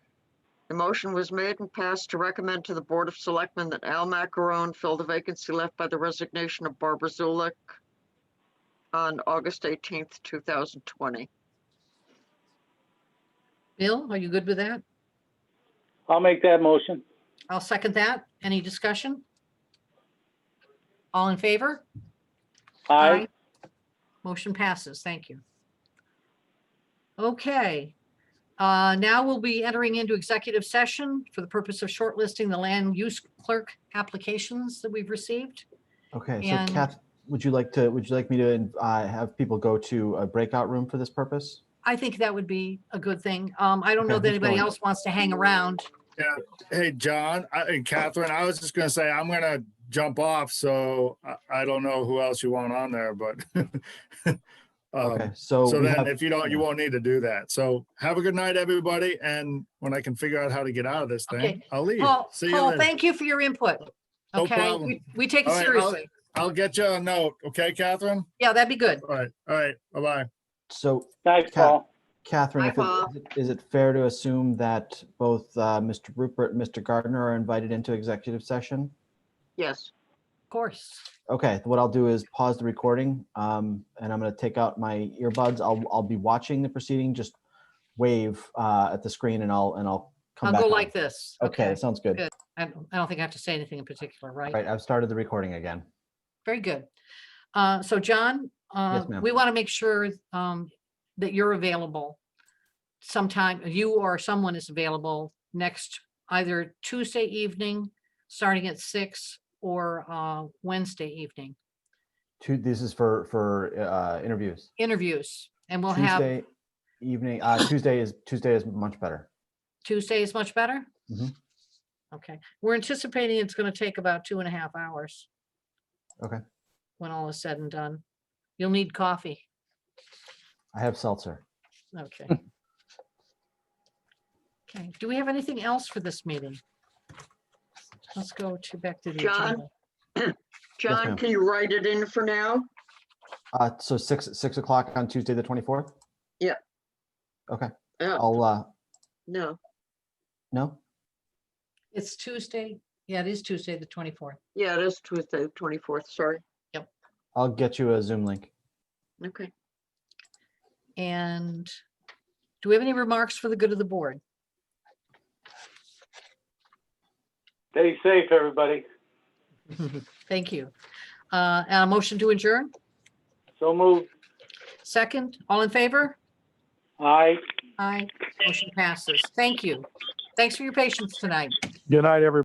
The motion was made and passed to recommend to the Board of Selectmen that Al Macaron fill the vacancy left by the resignation of Barbara Zulik on August 18th, 2020. Bill, are you good with that? I'll make that motion. I'll second that. Any discussion? All in favor? Aye. Motion passes. Thank you. Okay. Uh, Now we'll be entering into executive session for the purpose of shortlisting the land use clerk applications that we've received. Okay, And- so Kath, would you like to, would you like me to uh, have people go to a breakout room for this purpose? I think that would be a good thing. Um, I don't know Okay, that who's anybody going? else wants to hang around. Hey, John I- and Catherine, I was just gonna say, I'm gonna jump off, so I, I don't know who else you want on there, but. Okay, um, so So we then have- if you don't, you yeah. won't need to do that. So have a good night, everybody. And when I can figure out how to get out of this thing, Okay. I'll leave. Paul, See you Paul, later. thank you for your input. No Okay, problem. We- we take it All right, I'll- seriously. I'll get you a note, okay, Catherine? Yeah, that'd be good. All right, all right, bye-bye. So Nice, Cat- Paul. Catherine, Hi, if it- Paul. is it- is it fair to assume that both uh, Mr. Rupert and Mr. Gardner are invited into executive session? Yes, Of course. Okay, what I'll do is pause the recording, um, and I'm gonna take out my earbuds. I'll, I'll be watching the proceeding, just wave, uh, at the screen and I'll, and I'll come I'll back. go on. like this. Okay, sounds good. Good. I don't I don't think I have to say anything in particular, All right? Right, I've started the recording again. Very good. Uh, So John, uh, ma'am. we want to make sure um, that you're available sometime, you or someone is available next either Tuesday evening, starting at six, or uh, Wednesday evening, Two, this is for, for, uh, interviews. interviews. And we'll have, Tuesday evening, uh, Tuesday is, Tuesday is much better. Tuesday is much better? Mhm. Okay, we're anticipating it's going to take about two and a half hours. Okay. When all is said and done. You'll need coffee. I have seltzer. Okay. Okay, do we have anything else for this meeting? Let's go to back to the John? agenda. John, ma'am. can you write it in for now? Uh, so six, six o'clock on Tuesday, the twenty-fourth? Yeah. Okay, Yeah. I'll, uh, No, no, It's Tuesday. Yeah, it is Tuesday, the twenty-fourth. yeah, it is Tuesday, the 24th, sorry. I'll get you a Zoom link. Okay. And do we have any remarks for the good of the board? Stay safe, everybody. Thank you. Uh, and a motion to adjourn? So moved. Second, all in favor? Aye. Aye. Motion passes. Thank you. Thanks for your patience tonight. Good night, everybody.